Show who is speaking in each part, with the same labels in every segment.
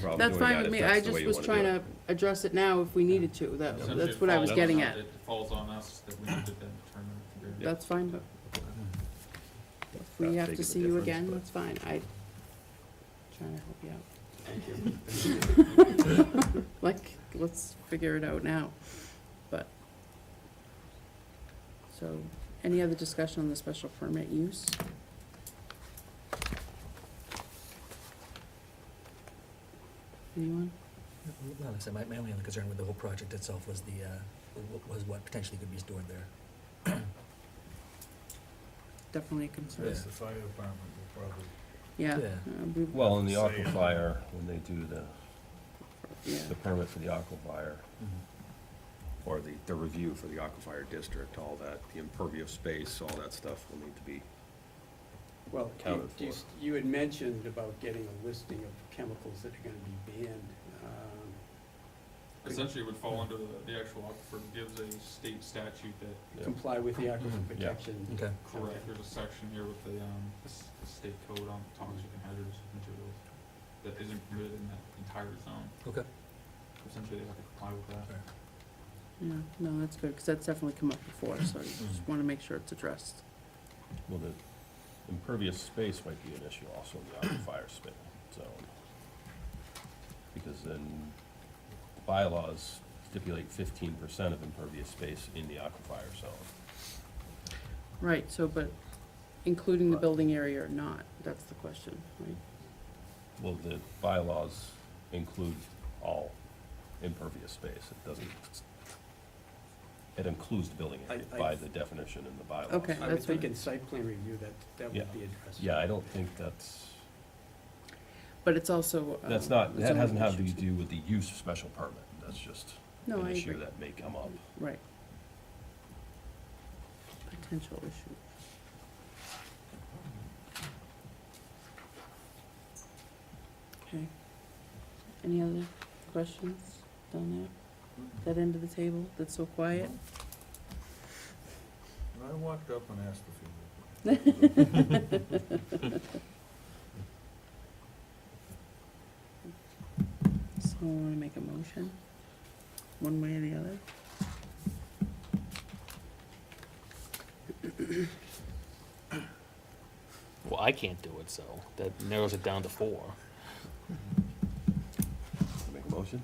Speaker 1: problem
Speaker 2: That's
Speaker 1: doing
Speaker 2: fine
Speaker 1: that
Speaker 2: with
Speaker 1: if
Speaker 2: me,
Speaker 1: that's
Speaker 2: I
Speaker 1: the way
Speaker 2: just
Speaker 1: you
Speaker 2: was
Speaker 1: wanna do
Speaker 2: trying
Speaker 1: it.
Speaker 2: to address it now if we needed to, that,
Speaker 3: Sometimes
Speaker 2: that's
Speaker 3: it
Speaker 2: what I was
Speaker 3: falls
Speaker 2: getting
Speaker 3: on-
Speaker 2: at.
Speaker 3: It falls on us that we need to then determine.
Speaker 1: Yeah.
Speaker 2: That's fine, but if we
Speaker 1: Not
Speaker 2: have
Speaker 1: big of
Speaker 2: to
Speaker 1: a
Speaker 2: see you
Speaker 1: difference,
Speaker 2: again,
Speaker 1: but-
Speaker 2: that's fine, I, trying to help you out. Like, let's figure it out now, but. So, any other discussion on the special permit use? Anyone?
Speaker 4: Well, like I said, my, my only other concern with the whole project itself was the, uh, wa- was what potentially could be stored there.
Speaker 2: Definitely a concern,
Speaker 5: Yes, the fire department will probably,
Speaker 2: yeah.
Speaker 4: Yeah.
Speaker 2: uh, we-
Speaker 1: Well, in the
Speaker 5: Say-
Speaker 1: aquifer, when they do the,
Speaker 2: yeah.
Speaker 1: the permit for the aquifer,
Speaker 6: Mm-hmm.
Speaker 1: or the, the review for the aquifer district, all that, the impervious space, all that stuff will need to be,
Speaker 7: Well, you-
Speaker 1: Accounted
Speaker 7: you,
Speaker 1: for.
Speaker 7: you had mentioned about getting a listing of chemicals that are gonna be banned. Um,
Speaker 3: Essentially, it would fall under the- the actual aquifer, gives a state statute that,
Speaker 1: Yeah.
Speaker 7: Comply with the aquifer
Speaker 4: Mhm,
Speaker 5: Mm-hmm.
Speaker 1: yeah.
Speaker 7: protection.
Speaker 4: Okay,
Speaker 3: correct, there's a section here with the, um, the s- the state code on toxic and hazardous materials that isn't permitted in that entire zone.
Speaker 4: okay.
Speaker 3: Essentially, they have to comply with that.
Speaker 2: Yeah, no, that's good, because that's definitely come up before, so I just
Speaker 1: Mm-hmm.
Speaker 2: want to make sure it's addressed.
Speaker 1: well, the impervious space might be an issue also in the aquifer space zone. Because then bylaws stipulate fifteen percent of impervious space in the aquifer zone.
Speaker 2: Right, so, but including the building area or not, that's the question, right?
Speaker 1: Well, the bylaws include all impervious space, it doesn't, it includes the building area
Speaker 7: I- I-
Speaker 1: by the definition in the bylaws.
Speaker 2: Okay.
Speaker 7: I would
Speaker 2: That's
Speaker 7: think
Speaker 2: fine.
Speaker 7: in site plan review that, that
Speaker 1: Yeah.
Speaker 7: would be addressed.
Speaker 1: Yeah, I don't think that's,
Speaker 2: But it's also. uh,
Speaker 1: that's not,
Speaker 2: a
Speaker 1: that hasn't
Speaker 2: zoning
Speaker 1: had to
Speaker 2: issue, too.
Speaker 1: do with the use of special permit, that's just
Speaker 2: No,
Speaker 1: an
Speaker 2: I
Speaker 1: issue
Speaker 2: agree.
Speaker 1: that may come up.
Speaker 2: Right. Potential issue. Okay. Any other questions down
Speaker 5: Mm-hmm.
Speaker 2: there? That end of the table that's so quiet?
Speaker 5: And I walked up and asked if you.
Speaker 2: Someone wanna make a motion, one way or the other?
Speaker 6: Well, I can't do it, so that narrows it down to four.
Speaker 1: Make a motion?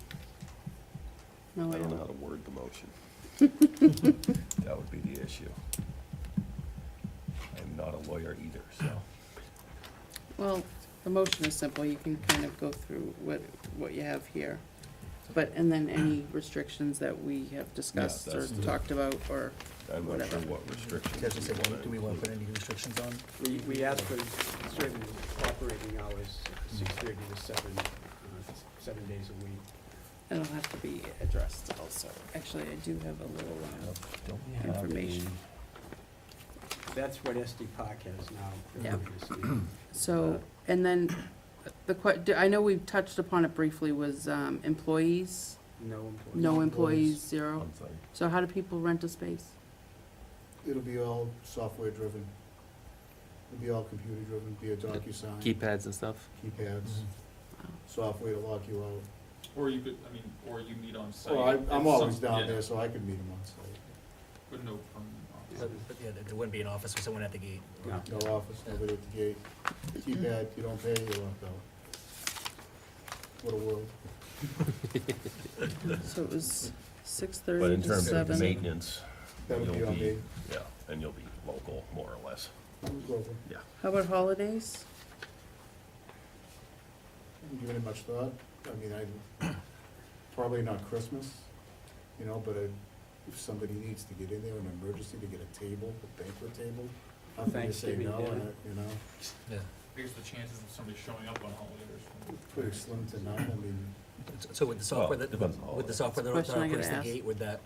Speaker 2: No,
Speaker 1: I
Speaker 2: I
Speaker 1: don't know how
Speaker 2: don't.
Speaker 1: to word the motion. That would be the issue. I'm not a lawyer either, so.
Speaker 2: Well, the motion is simple, you can kind of go through what, what you have here. But, and then any restrictions that we have discussed or
Speaker 1: that's the-
Speaker 2: talked about, or,
Speaker 1: I'm not sure
Speaker 2: Whatever.
Speaker 1: what restrictions.
Speaker 4: As you said,
Speaker 1: we wanna
Speaker 4: do we want to put
Speaker 1: include.
Speaker 4: any restrictions on?
Speaker 7: We, we asked for certain operating hours, six thirty to seven, uh, seven days a week.
Speaker 2: that'll have to be addressed also. Actually, I do have a little, uh,
Speaker 1: Don't we have
Speaker 2: Information.
Speaker 1: a-
Speaker 7: That's what SD Park has now. they're
Speaker 2: Yeah.
Speaker 7: gonna see. uh,
Speaker 2: So, and then, the que, I know we've touched upon it briefly, was, um, employees,
Speaker 7: No employees. Um,
Speaker 2: no employees, zero.
Speaker 1: I'm sorry.
Speaker 2: So how do people rent a space?
Speaker 8: It'll be all software driven. It'll be all computer driven, be a DocuSign.
Speaker 6: Keypads and stuff. Mm-hmm.
Speaker 8: Keypads,
Speaker 4: Mm-hmm.
Speaker 8: software to lock you out.
Speaker 3: Or you could, I mean, or you meet on site.
Speaker 8: Well, I- I'm
Speaker 3: It's
Speaker 8: always
Speaker 3: some- yeah,
Speaker 8: down there, so I could meet them on site.
Speaker 3: But no permanent office.
Speaker 4: But, but yeah, there- there wouldn't be an office with someone at the gate. or-
Speaker 7: No.
Speaker 8: No office, nobody at the gate. Keypad, you don't pay, you're locked out. What a world.
Speaker 2: So it was six
Speaker 1: But
Speaker 2: thirty
Speaker 1: in
Speaker 2: to
Speaker 1: terms of the
Speaker 2: seven.
Speaker 1: maintenance,
Speaker 8: That
Speaker 1: you'll
Speaker 8: would be on
Speaker 1: be,
Speaker 8: me.
Speaker 1: yeah, and you'll be local, more or less.
Speaker 8: I'm global.
Speaker 1: Yeah.
Speaker 2: How about holidays?
Speaker 8: Haven't given it much thought. I mean, I, probably not Christmas, you know, but I- if somebody needs to get in there, an emergency to get a table, a banquet table, I'm gonna say
Speaker 7: Thanksgiving
Speaker 8: no, and
Speaker 7: dinner.
Speaker 8: I- you know.
Speaker 4: Yeah.
Speaker 3: I guess the chances of somebody showing up on holiday or something.
Speaker 8: Pretty slim to none, I mean,
Speaker 4: So- So with the software
Speaker 1: Well,
Speaker 4: that,
Speaker 1: depends on
Speaker 4: with the
Speaker 1: holidays.
Speaker 4: software that
Speaker 2: Question I
Speaker 4: operates
Speaker 2: gotta
Speaker 4: the
Speaker 2: ask.
Speaker 4: gate, would that,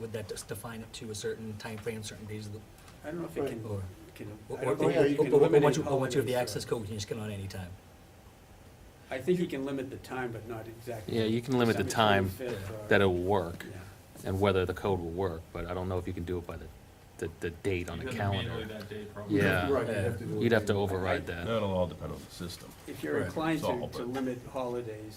Speaker 4: would that just define it to a certain timeframe, certain days of the,
Speaker 7: I don't know if it can,
Speaker 4: or?
Speaker 7: can,
Speaker 4: or-
Speaker 7: I
Speaker 4: or-
Speaker 7: don't know
Speaker 4: or-
Speaker 8: yeah,
Speaker 7: if you
Speaker 4: or-
Speaker 7: can
Speaker 4: or- or
Speaker 7: eliminate
Speaker 4: once you- Or once you have the
Speaker 7: holidays,
Speaker 4: access
Speaker 7: uh,
Speaker 4: code, you can just get on anytime.
Speaker 7: I think you can limit the time, but not exactly.
Speaker 6: Yeah, you can limit the
Speaker 7: December
Speaker 6: time
Speaker 7: 25th or-
Speaker 6: that it'll work
Speaker 7: Yeah.
Speaker 6: and whether the code will work, but I don't know if you can do it by the, the, the date on the
Speaker 3: You'd have to manually
Speaker 6: calendar.
Speaker 3: that day, probably.
Speaker 6: Yeah.
Speaker 8: right, you have to do it.
Speaker 6: You'd have to override that.
Speaker 1: That'll all depend on the system.
Speaker 7: If you're
Speaker 4: Right.
Speaker 7: inclined
Speaker 1: It's all
Speaker 7: to, to
Speaker 1: but-
Speaker 7: limit holidays,